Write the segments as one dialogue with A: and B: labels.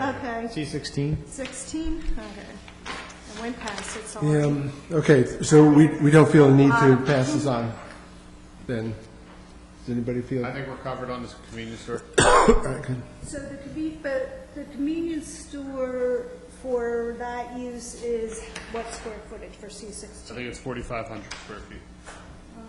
A: Okay,
B: C sixteen?
A: 16, okay. I went past it, so.
C: Um, Okay, so we, we don't feel a need to pass this on, then? Does anybody feel?
B: I think we're covered on this convenience store.
C: All right, good.
D: So the conven, but the convenience store for that use is what square footage for C
B: I
D: sixteen?
B: think it's forty-five hundred square feet. Uh,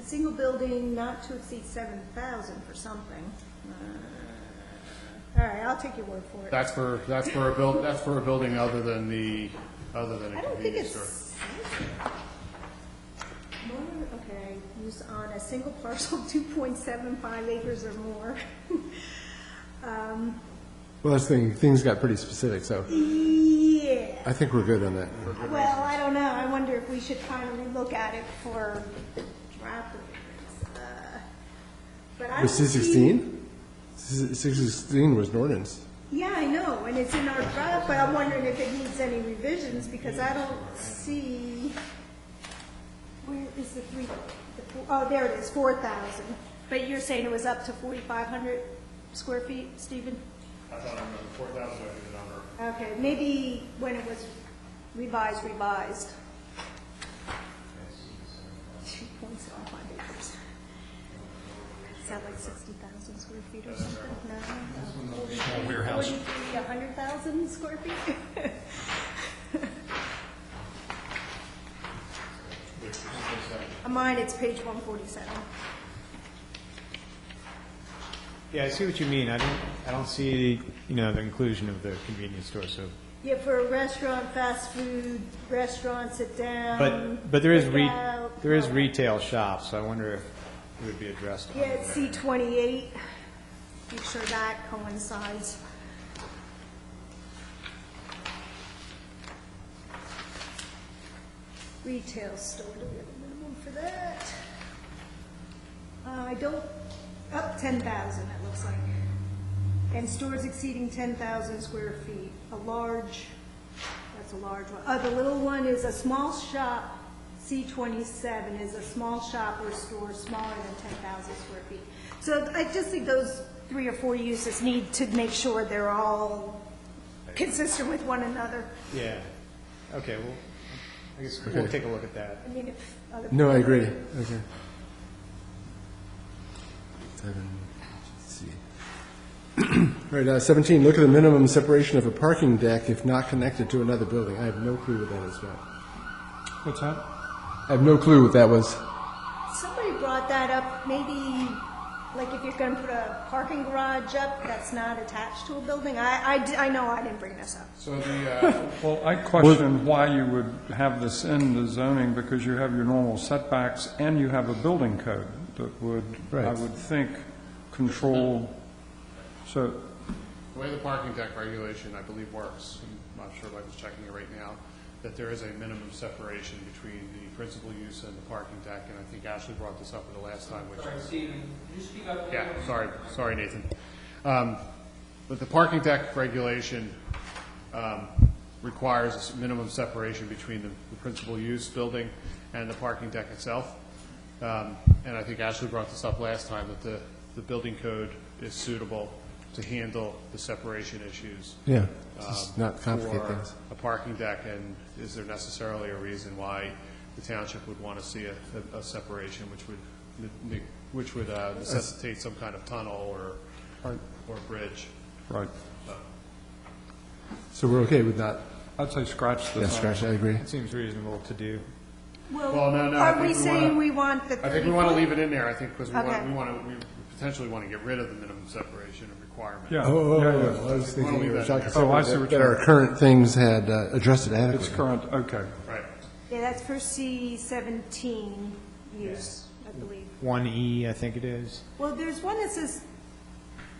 D: A single building not to exceed seven thousand for something. Uh, All right, I'll take your word for it.
B: That's for, that's for a build, that's for a building other than the, other than
D: I
B: a
D: don't think
B: convenience
D: it's.
B: store.
D: More, Okay, use on a single parcel, two point seven five acres or more. Um,
C: Well, that's the thing, things got pretty specific, so
D: Yeah.
C: I think we're good on that.
D: Well, I don't know, I wonder if we should finally look at it for draft ordinance. uh, But I don't
C: Was C
D: see-
C: sixteen? C sixteen was an ordinance.
D: Yeah, I know, and it's in our draft, but I'm wondering if it needs any revisions, because I don't see, where is the three, the four- oh, there it is, four thousand. But you're saying it was up to forty-five hundred square feet, Stephen?
B: I thought I remembered four thousand would be the number.
D: Okay, maybe when it was revised, revised. Two point seven five acres. Is that like sixty thousand square feet or something? No? Warehouse. Forty-three, a hundred thousand square feet? On Mine, it's page one forty-seven.
E: Yeah, I see what you mean. I don't, I don't see, you know, the inclusion of the convenience store, so.
D: Yeah, for a restaurant, fast food, restaurant, sit down.
E: But, but there is re,
D: takeout,
E: there is
D: all that.
E: retail shops, so I wonder if it would be addressed.
D: Yeah, it's C twenty-eight. Make sure that coincides. Retail store, do we have a minimum for that? Uh, I don't, up ten thousand, it looks like. And stores exceeding ten thousand square feet, a large, that's a large one. Uh, the little one is a small shop, C twenty-seven is a small shop or store smaller than ten thousand square feet. So I just think those three or four uses need to make sure they're all consistent with one another.
E: Yeah. Okay, well, I guess we'll
C: Okay.
E: take a look at that.
D: I mean, if other
C: No, I agree, okay. Seven, let's see. All right, uh, seventeen, look at the minimum separation of a parking deck if not connected to another building. I have no clue what that is about.
E: What's that?
C: I have no clue what that was.
D: Somebody brought that up, maybe, like if you're gonna put a parking garage up that's not attached to a building, I, I di- I know I didn't bring this up.
B: So the, uh,
F: Well, I question why you would have this in the zoning, because you have your normal setbacks and you have a building code that would, I
C: Right.
F: would think, control, so,
B: The way the parking deck regulation, I believe, works, I'm not sure Michael's checking it right now, that there is a minimum separation between the principal use and the parking deck, and I think Ashley brought this up at the last time, which
G: Sorry,
B: is,
G: Stephen, could you speak up? a little
B: yeah,
G: bit?
B: sorry, sorry, Nathan. Um, But the parking deck regulation um, requires a s- minimum separation between the the principal use building and the parking deck itself. Um, And I think Ashley brought this up last time, that the, the building code is suitable to handle the separation issues um,
C: Yeah, just not complicate
B: for
C: things.
B: a parking deck, and is there necessarily a reason why the township would want to see a, a- a separation, which would, ne- ne- which would uh, necessitate some kind of tunnel or, or bridge?
F: right.
C: So we're okay with that?
F: I'd say scratch
C: Yeah,
F: this.
C: scratch, I agree.
E: It seems reasonable to do.
B: Well, no, no, I
D: Are
B: think
D: we
B: we
D: saying
B: wanna-
D: we want the
B: I think
D: thirty
B: we want to
D: foot?
B: leave it in there, I think, because we want,
D: Okay.
B: we want to, we potentially want to get rid of the minimum separation requirement.
F: Yeah,
C: Oh,
F: yeah,
C: oh,
F: yeah.
C: oh, I was
B: Why don't
C: thinking,
B: we
C: you were
B: leave that
C: talking
B: in
F: there? Oh, I see
C: that
F: what
C: that
F: you
C: our
F: mean.
C: current things had uh, addressed it
F: It's
C: adequately.
F: current, okay.
B: Right.
D: Yeah, that's for C seventeen use, I believe.
E: One E, I think it is.
D: Well, there's one that says,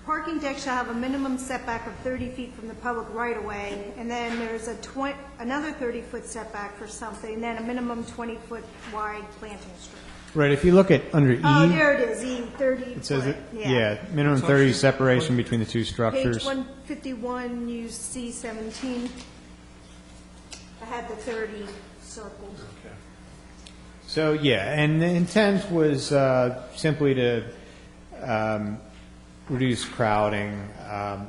D: parking deck shall have a minimum setback of thirty feet from the public right of way, and then there's a twen, another thirty-foot setback for something, then a minimum twenty-foot wide planting strip.
E: Right, if you look at under E.
D: Oh, there it is, E thirty.
E: It says,
D: foot,
E: it- yeah, minimum 30 separation between the two structures.
D: Page one fifty-one, you see seventeen. I had the thirty circled.
E: So, yeah, and the intent was uh, simply to um, reduce crowding, um,